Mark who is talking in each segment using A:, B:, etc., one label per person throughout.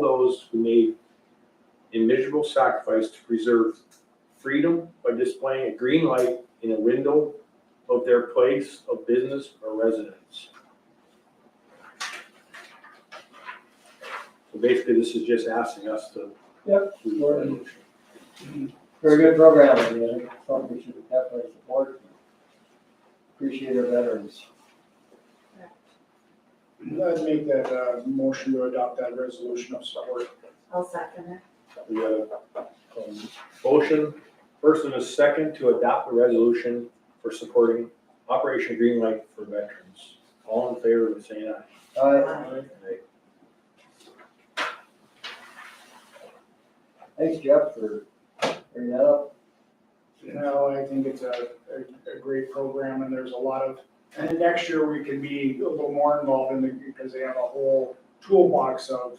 A: those who made a miserable sacrifice to preserve freedom by displaying a green light in a window of their place of business or residence. So basically, this is just asking us to.
B: Yep.
A: to-
B: Very good program, I mean, it's something we should definitely support. Appreciate our veterans.
C: I'd make that uh, motion to adopt that resolution of support.
D: I'll second it.
A: We got a um, motion, first and a second, to adopt the resolution for supporting Operation Greenlight for veterans. All in favor of saying aye.
B: Uh, thanks Jeff for bringing that up.
C: No, I think it's a, a, a great program and there's a lot of, and next year we could be a little more involved in the, because they have a whole toolbox of,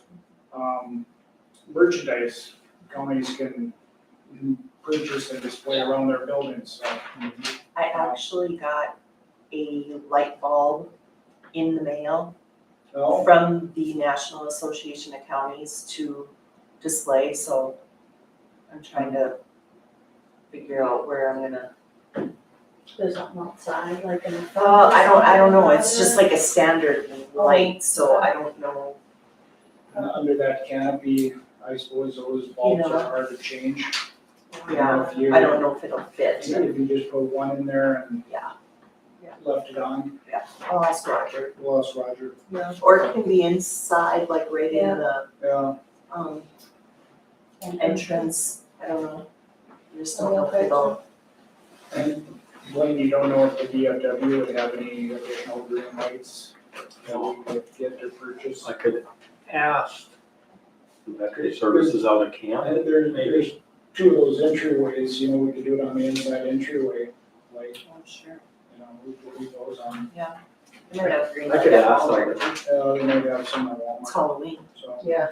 C: um, merchandise counties can purchase and display around their buildings, so.
E: I actually got a light bulb in the mail
A: Oh.
C: So,
E: from the National Association of Counties to display, so I'm trying to figure out where I'm gonna.
D: There's something outside, like in the.
E: Uh, I don't, I don't know, it's just like a standard light, so I don't know.
C: uh, under that canopy, I suppose those bulbs
E: Yeah.
C: are hard to change. You
E: Yeah,
C: know, if you-
E: I don't know if it'll fit.
C: If you just put one in there and
E: Yeah.
C: left it on,
E: I'll ask Roger.
C: lost Roger.
E: Or it can be inside, like right in the,
C: Yeah,
E: um,
D: And
E: entrance, I don't know. I Just don't
D: Oh,
E: know if
D: okay.
E: it'll.
C: and Blaine, you don't know if the DFW would have any additional green lights that we could get to purchase.
A: I could ask the veteran services out of camp.
C: And there, there's two of those entryways, you know, we could do it on the inside entryway, like,
E: I'm sure.
C: you know, we could leave those on.
E: I might have green.
A: I could
E: light
A: ask,
E: all
A: like-
E: over.
C: Uh, we might have some at
E: It's
C: Walmart,
E: Halloween.
C: so.
D: Yeah.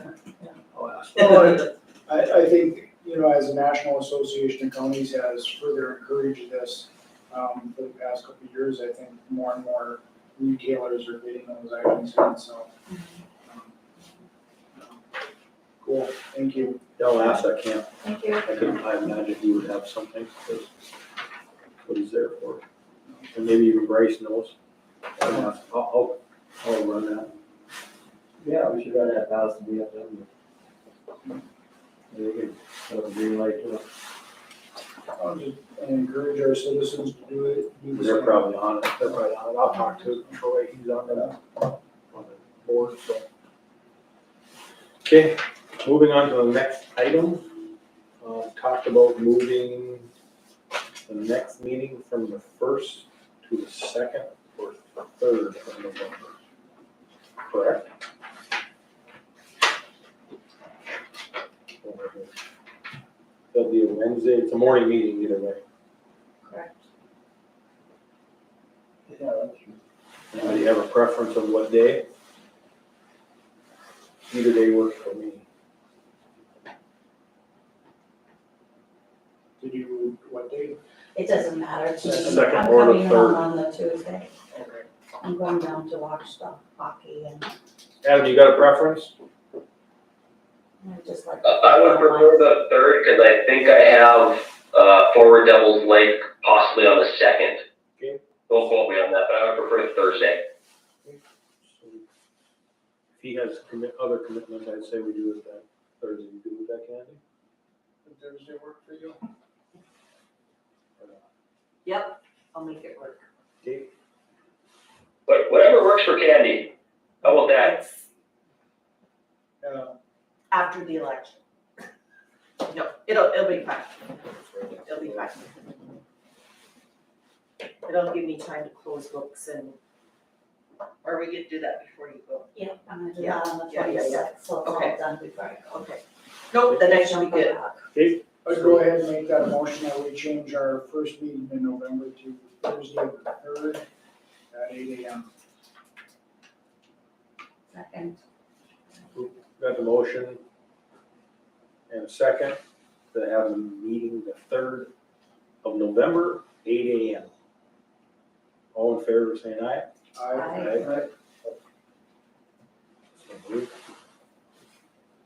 A: I'll ask.
C: Well, I, I think, you know, as the National Association of Counties has further encouraged this, um, for the past couple of years, I think more and more retailers are getting those items in, so. um, Cool, thank you.
A: I'll ask that camp.
D: Thank you.
A: I could, I imagine he would have something, that's what he's there for. And maybe even Bryce knows. I'll, ask- I'll, I'll- I'll run that.
B: Yeah, we should run that past the VFW. They could put up a green light to it.
C: I'll just encourage our citizens to do it, do the
A: They're
C: same.
A: probably on it, they're probably on it. I'll talk to Troy, he's on the, on the board, so. Okay, moving on to the next item. Uh, talked about moving the next meeting from the first to the second or third of November. Correct? That'll be a Wednesday, it's a morning meeting either way.
D: Correct.
B: Yeah, that's true.
A: Anybody have a preference of what day? Either day works for me.
C: Did you, what date?
D: It doesn't matter to me.
A: Just the second or the
D: I'm coming
A: third.
D: home on the Tuesday.
C: Okay.
D: I'm going down to watch the hockey and
A: Adam, you got a preference?
D: I just like.
A: Uh,
F: I would prefer the third because I think I have uh, Forward Devils Lake possibly on the second.
A: Okay.
F: Don't quote me on that, but I would prefer Thursday.
A: If he has commit, other commitment, I'd say we do it that Thursday, you do it that Candy?
C: Did Thursday work for you?
E: Yep, I'll make it work.
A: Okay,
F: But whatever works for Candy, how about that?
E: It's
C: Yeah,
E: After the election. No, it'll, it'll be fine. It'll be fine. It'll give me time to close books and, or we could do that before you go.
D: Yeah, I'm gonna do
E: Yeah,
D: that on the
E: yeah, yeah, yeah.
D: twenty-sixth, so it's all
E: Okay.
D: done before I go.
E: Okay. Nope, then I should be good.
A: okay,
C: I'd go ahead and make that motion that we change our first meeting in November to Thursday the third at eight AM.
D: Second.
A: got the motion. And a second, to have a meeting the third of November, eight AM. All in favor of saying aye?
C: I,
D: Aye.
A: Aye. So moved.